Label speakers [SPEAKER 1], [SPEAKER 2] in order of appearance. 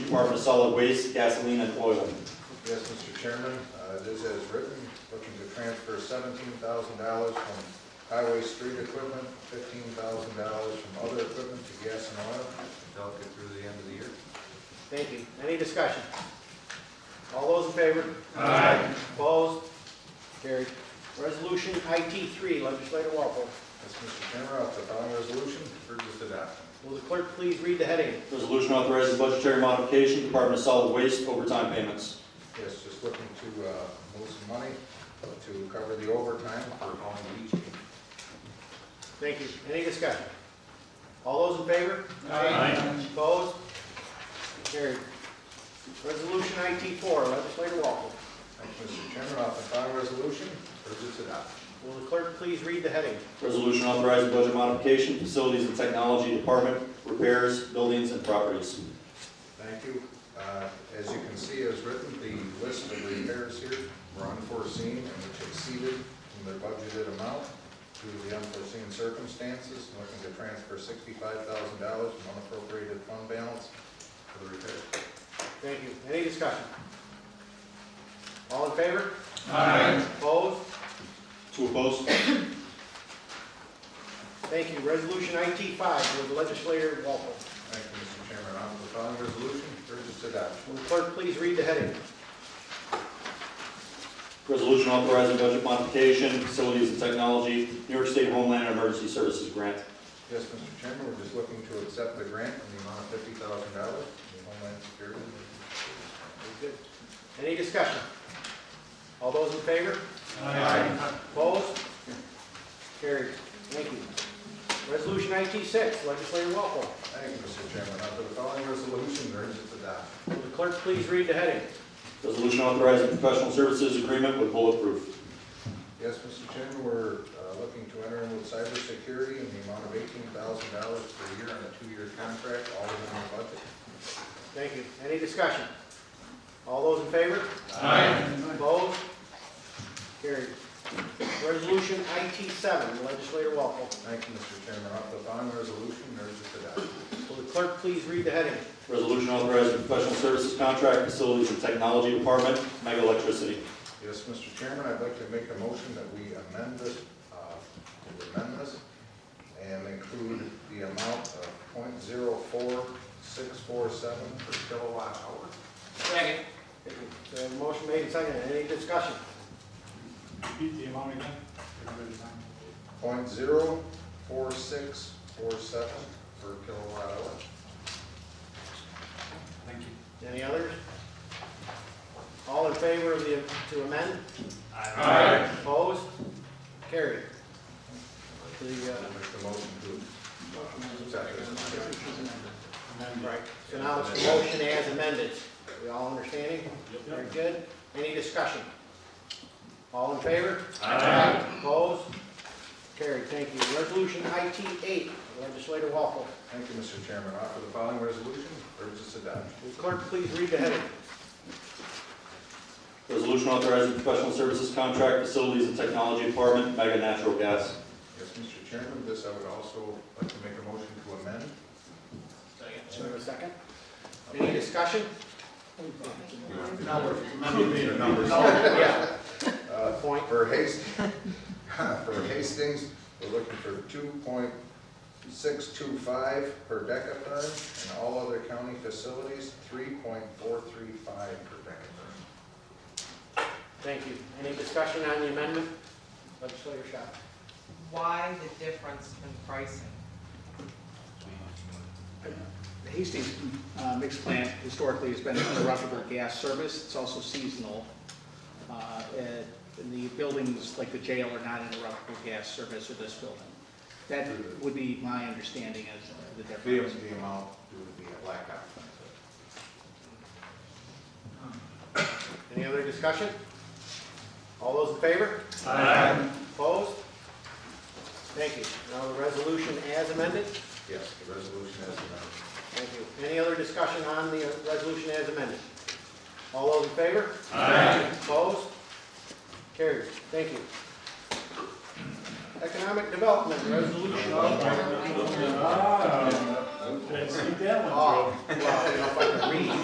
[SPEAKER 1] Department of Solid Waste, Gasoline and Oil.
[SPEAKER 2] Yes, Mr. Chairman, uh, this is written, looking to transfer seventeen thousand dollars from highway street equipment, fifteen thousand dollars from other equipment to gas and oil, until it get through the end of the year.
[SPEAKER 3] Thank you. Any discussion? All those in favor? Aye. Opposed? Carried. Resolution IT three, legislator Walpole.
[SPEAKER 2] Yes, Mr. Chairman, I'll put on resolution, urge its adoption.
[SPEAKER 3] Will the clerk please read the heading?
[SPEAKER 1] Resolution authorizing budgetary modification, Department of Solid Waste overtime payments.
[SPEAKER 2] Yes, just looking to uh, move some money to cover the overtime for home beach.
[SPEAKER 3] Thank you. Any discussion? All those in favor? Aye. Opposed? Carried. Resolution IT four, legislator Walpole.
[SPEAKER 2] Thank you, Mr. Chairman, I'll put on resolution, urge its adoption.
[SPEAKER 3] Will the clerk please read the heading?
[SPEAKER 1] Resolution authorizing budget modification, Facilities and Technology Department, repairs, buildings, and properties.
[SPEAKER 2] Thank you. Uh, As you can see, as written, the list of repairs here were unforeseen and which exceeded their budgeted amount due to the unforeseen circumstances, looking to transfer sixty-five thousand dollars from unappropriated fund balance for the repair.
[SPEAKER 3] Thank you. Any discussion? All in favor? Aye. Opposed?
[SPEAKER 1] Two opposed?
[SPEAKER 3] Thank you. Resolution IT five, will the legislator Walpole.
[SPEAKER 2] Thank you, Mr. Chairman. On to the following resolution, urge its adoption.
[SPEAKER 3] Will the clerk please read the heading?
[SPEAKER 1] Resolution authorizing budget modification, Facilities and Technology, New York State Homeland and Emergency Services Grant.
[SPEAKER 2] Yes, Mr. Chairman, we're just looking to accept the grant in the amount of fifty thousand dollars from Homeland Security.
[SPEAKER 3] Very good. Any discussion? All those in favor?
[SPEAKER 2] Aye.
[SPEAKER 3] Opposed? Carried. Thank you. Resolution IT six, legislator Walpole.
[SPEAKER 2] Thank you, Mr. Chairman. On to the following resolution, urge its adoption.
[SPEAKER 3] Will the clerk please read the heading?
[SPEAKER 1] Resolution authorizing professional services agreement with Bulletproof.
[SPEAKER 2] Yes, Mr. Chairman, we're uh, looking to enter into cybersecurity in the amount of eighteen thousand dollars per year on a two-year contract, all within the budget.
[SPEAKER 3] Thank you. Any discussion? All those in favor? Aye. Opposed? Carried. Resolution IT seven, legislator Walpole.
[SPEAKER 2] Thank you, Mr. Chairman. Off the bond resolution, urge its adoption.
[SPEAKER 3] Will the clerk please read the heading?
[SPEAKER 1] Resolution authorizing professional services contract, Facilities and Technology Department, mega electricity.
[SPEAKER 2] Yes, Mr. Chairman, I'd like to make a motion that we amend this, uh, to amend this, and include the amount of point zero four six four seven per kilowatt hour.
[SPEAKER 3] Second. So motion made and seconded. Any discussion?
[SPEAKER 4] Repeat the amount again. Everybody sign.
[SPEAKER 2] Point zero four six four seven per kilowatt hour.
[SPEAKER 4] Thank you.
[SPEAKER 3] Any others? All in favor of the, to amend?
[SPEAKER 4] Aye.
[SPEAKER 3] Opposed? Carried. The, uh,
[SPEAKER 2] I'll Make the motion to uh, accept this.
[SPEAKER 3] right, so now it's the motion as amended. We all understanding? Very good. Any discussion? All in favor? Aye. Opposed? Carried, thank you. Resolution IT eight, legislator Walpole.
[SPEAKER 2] Thank you, Mr. Chairman. Offer the following resolution, urge its adoption.
[SPEAKER 3] Will the clerk please read the heading?
[SPEAKER 1] Resolution authorizing professional services contract, Facilities and Technology Department, mega natural gas.
[SPEAKER 2] Yes, Mr. Chairman, this I would also like to make a motion to amend.
[SPEAKER 3] Is there a second? Any discussion? Now we're
[SPEAKER 2] The numbers.
[SPEAKER 3] Yeah,
[SPEAKER 2] Uh,
[SPEAKER 3] point.
[SPEAKER 2] For Hastings, for Hastings, we're looking for two point six two five per decatherm, and all other county facilities, three point four three five per decatherm.
[SPEAKER 3] Thank you. Any discussion on the amendment? Legislator Shaw.
[SPEAKER 5] why the difference in pricing?
[SPEAKER 6] The Hastings uh, mixed plant historically has been an interruptible gas service. It's also seasonal. Uh, and The buildings like the jail are not interruptible gas service of this building. That would be my understanding as the difference.
[SPEAKER 2] The amount due to the blackout.
[SPEAKER 3] Any other discussion? All those in favor? Aye. Opposed? Thank you. Now the resolution as amended.
[SPEAKER 2] Yes, the resolution as amended.
[SPEAKER 3] Thank you. Any other discussion on the resolution as amended? All those in favor? Aye. Opposed? Carried. Thank you. Economic development resolution.
[SPEAKER 4] Ah, did I see that one?
[SPEAKER 3] Oh, well, I don't know if I can read.